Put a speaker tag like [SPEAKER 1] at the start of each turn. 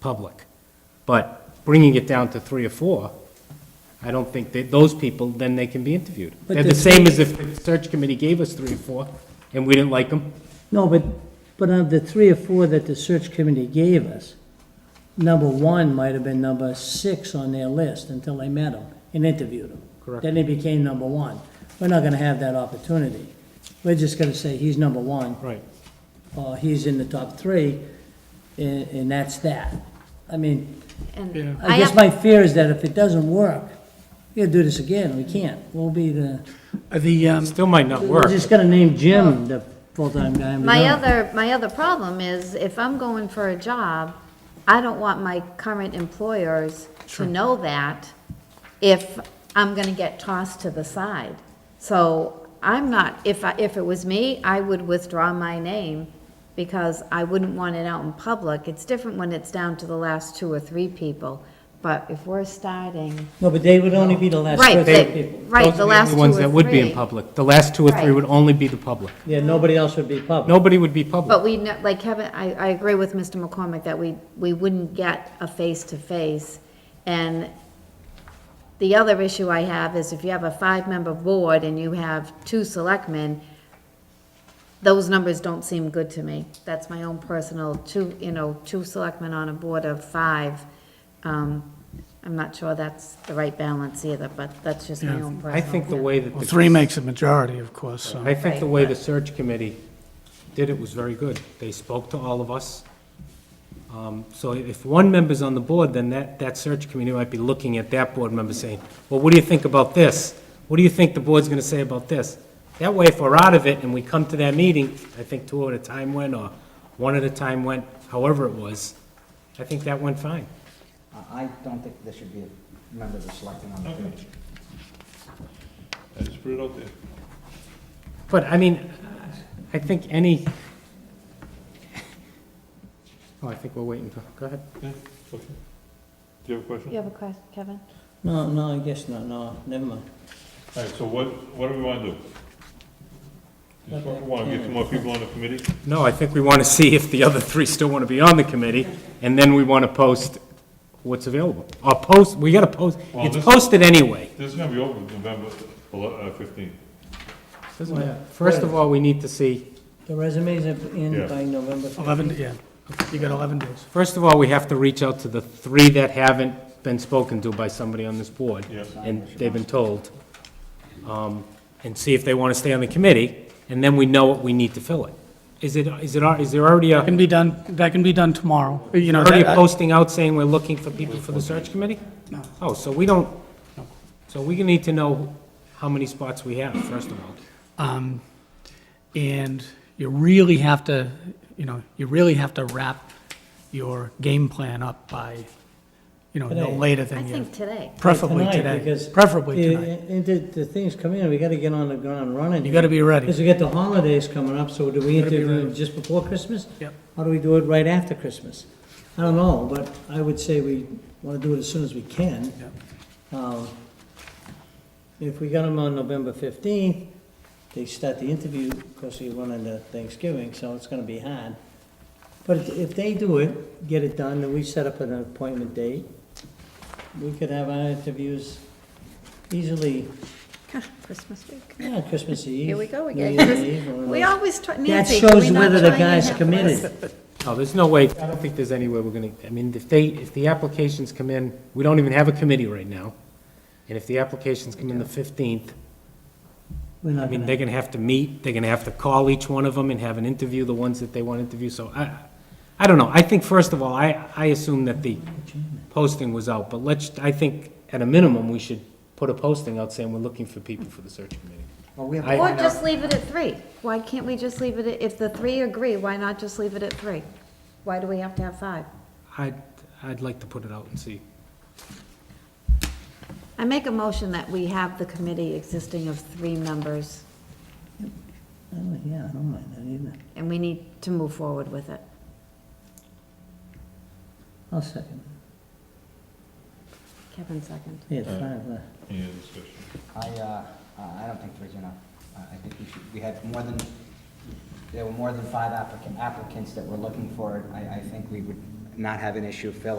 [SPEAKER 1] public. But bringing it down to three or four, I don't think that those people, then they can be interviewed.
[SPEAKER 2] But
[SPEAKER 1] They're the
[SPEAKER 2] this-
[SPEAKER 1] same as if the search committee gave us three or four, and we didn't like them.
[SPEAKER 2] No, but, but of the three or four that the search committee gave us, number one might have been number six on their list until they met him and interviewed him.
[SPEAKER 1] Correct.
[SPEAKER 2] Then he became number one. We're not gonna have that opportunity. We're just gonna say he's number one,
[SPEAKER 1] Right.
[SPEAKER 2] or he's in the top three, and, and that's that. I mean,
[SPEAKER 3] And I
[SPEAKER 2] I guess
[SPEAKER 3] have,
[SPEAKER 2] my fear is that if it doesn't work, we'll do this again. We can't. We'll be the,
[SPEAKER 4] The, um,
[SPEAKER 1] Still might not
[SPEAKER 2] we're
[SPEAKER 1] work.
[SPEAKER 2] just gonna name Jim the full-time guy. and we
[SPEAKER 3] my
[SPEAKER 2] don't.
[SPEAKER 3] other, my other problem is if I'm going for a job, I don't want my current employers to know that if I'm gonna get tossed to the side. So I'm not, if I, if it was me, I would withdraw my name because I wouldn't want it out in public. It's different when it's down to the last two or three people, but if we're starting,
[SPEAKER 2] No, but they would only be the last
[SPEAKER 3] right,
[SPEAKER 2] person.
[SPEAKER 3] they-
[SPEAKER 2] people.
[SPEAKER 3] right, the last
[SPEAKER 1] Those are the only
[SPEAKER 3] two or
[SPEAKER 1] ones that would be in
[SPEAKER 3] three.
[SPEAKER 1] public. The last two or three
[SPEAKER 3] Right.
[SPEAKER 1] would only be the public.
[SPEAKER 2] Yeah, nobody else would be public.
[SPEAKER 1] Nobody would be public.
[SPEAKER 3] But we, ne- like Kevin, I, I agree with Mr. McCormick that we, we wouldn't get a face-to-face. And the other issue I have is if you have a five-member board and you have two selectmen, those numbers don't seem good to me. That's my own personal, two, you know, two selectmen on a board of five. Um, I'm not sure that's the right balance either, but that's just my
[SPEAKER 4] Yeah.
[SPEAKER 3] own personal.
[SPEAKER 1] I think the way that.
[SPEAKER 4] well,
[SPEAKER 1] the-
[SPEAKER 4] three makes a majority, of course, so.
[SPEAKER 1] I think the way the search committee did it was very good. They spoke to all of us. Um, So if one member's on the board, then that, that search committee might be looking at that board member saying, well, what do you think about this? What do you think the board's gonna say about this? That way, if we're out of it and we come to that meeting, I think two at a time went, or one at a time went, however it was, I think that went fine.
[SPEAKER 5] I- I don't think there should be a member of the selectmen on the committee.
[SPEAKER 6] I just put it out there.
[SPEAKER 1] But, I mean, I think any... Oh, I think we're waiting for, go ahead.
[SPEAKER 6] Yeah, okay. Do you have a question?
[SPEAKER 3] You have a question, Kevin?
[SPEAKER 2] No, no, I guess not, no, never mind.
[SPEAKER 6] All right, so what, what do we want to do? You just want to get some more people on the committee?
[SPEAKER 1] No, I think we want to see if the other three still want to be on the committee, and then we want to post what's available. Or post, we got to post,
[SPEAKER 6] Well,
[SPEAKER 1] it's
[SPEAKER 6] this-
[SPEAKER 1] posted anyway.
[SPEAKER 6] This is going to be over November ele- uh, 15th.
[SPEAKER 1] Doesn't matter. First of all, we need to see,
[SPEAKER 2] The resumes are in
[SPEAKER 6] Yeah.
[SPEAKER 2] by November. 15th.
[SPEAKER 4] Eleven, yeah, you got eleven days.
[SPEAKER 1] first of all, we have to reach out to the three that haven't been spoken to by somebody on this board.
[SPEAKER 6] Yes.
[SPEAKER 1] And they've been told, um, and see if they want to stay on the committee, and then we know what we need to fill it. Is it, is it, al- is there already
[SPEAKER 4] That can
[SPEAKER 1] a,
[SPEAKER 4] be done, that can be done tomorrow, you know.
[SPEAKER 1] already a
[SPEAKER 4] that-
[SPEAKER 1] posting out saying we're looking for people for the search committee?
[SPEAKER 4] No.
[SPEAKER 1] Oh, so we don't, so we need to know how many spots we have, first of all.
[SPEAKER 4] Um, and you really have to, you know, you really have to wrap your game plan up by, you know, no
[SPEAKER 2] Today.
[SPEAKER 4] later
[SPEAKER 3] I
[SPEAKER 4] than you,
[SPEAKER 3] think today.
[SPEAKER 4] preferably today,
[SPEAKER 2] because
[SPEAKER 4] preferably
[SPEAKER 2] the-
[SPEAKER 4] tonight.
[SPEAKER 2] And the, the things come in, we gotta get on the ground running.
[SPEAKER 4] You gotta be
[SPEAKER 2] Because
[SPEAKER 4] ready.
[SPEAKER 2] we got the holidays coming up, so do we
[SPEAKER 4] Gotta be
[SPEAKER 2] interview
[SPEAKER 4] ready.
[SPEAKER 2] them just before Christmas?
[SPEAKER 4] Yep.
[SPEAKER 2] How do we do it right after Christmas? I don't know, but I would say we wanna do it as soon as we can. Um, If we got them on November fifteenth, they start the interview, of course, we run into Thanksgiving, so it's gonna be hard. But if- if they do it, get it done, then we set up an appointment date, we could have our interviews easily,
[SPEAKER 3] Christmas week.
[SPEAKER 2] yeah, Christmas Eve.
[SPEAKER 3] Here we go
[SPEAKER 2] New
[SPEAKER 3] again.
[SPEAKER 2] Year's Eve, one of
[SPEAKER 3] We
[SPEAKER 2] those.
[SPEAKER 3] always try,
[SPEAKER 2] That
[SPEAKER 3] Nancy, can we
[SPEAKER 2] shows
[SPEAKER 3] not
[SPEAKER 2] whether the
[SPEAKER 3] try and
[SPEAKER 2] guy's
[SPEAKER 3] have
[SPEAKER 2] committed.
[SPEAKER 3] less?
[SPEAKER 1] No, there's no way, I don't think there's any way we're gonna, I mean, if they, if the applications come in, we don't even have a committee right now. And if the applications come in the fifteenth,
[SPEAKER 2] We're
[SPEAKER 1] I
[SPEAKER 2] not
[SPEAKER 1] mean,
[SPEAKER 2] gonna-
[SPEAKER 1] they're gonna have to meet, they're gonna have to call each one of them and have an interview, the ones that they want to interview, so I, I don't know, I think, first of all, I, I assume that the posting was out, but let's, I think, at a minimum, we should put a posting out saying we're looking for people for the search committee.
[SPEAKER 5] Well, we have
[SPEAKER 1] I-
[SPEAKER 5] to
[SPEAKER 3] Or
[SPEAKER 5] find
[SPEAKER 3] just
[SPEAKER 5] out,
[SPEAKER 3] leave it at three. Why can't we just leave it, at if the three agree, why not just leave it at three? Why do we have to have five?
[SPEAKER 1] I'd, I'd like to put it out and see.
[SPEAKER 3] I make a motion that we have the committee existing of three members,
[SPEAKER 2] I don't- Oh, Yeah, I don't mind that either.
[SPEAKER 3] and we need to move forward with it.
[SPEAKER 2] I'll second.
[SPEAKER 3] Kevin second.
[SPEAKER 2] Yeah, it's fine, uh,
[SPEAKER 6] Any other discussion?
[SPEAKER 5] I, uh, I I don't think there's enough. I I think we should, we had more than, there were more than five applicant, applicants that were looking for it. I, I think we would not have an issue filling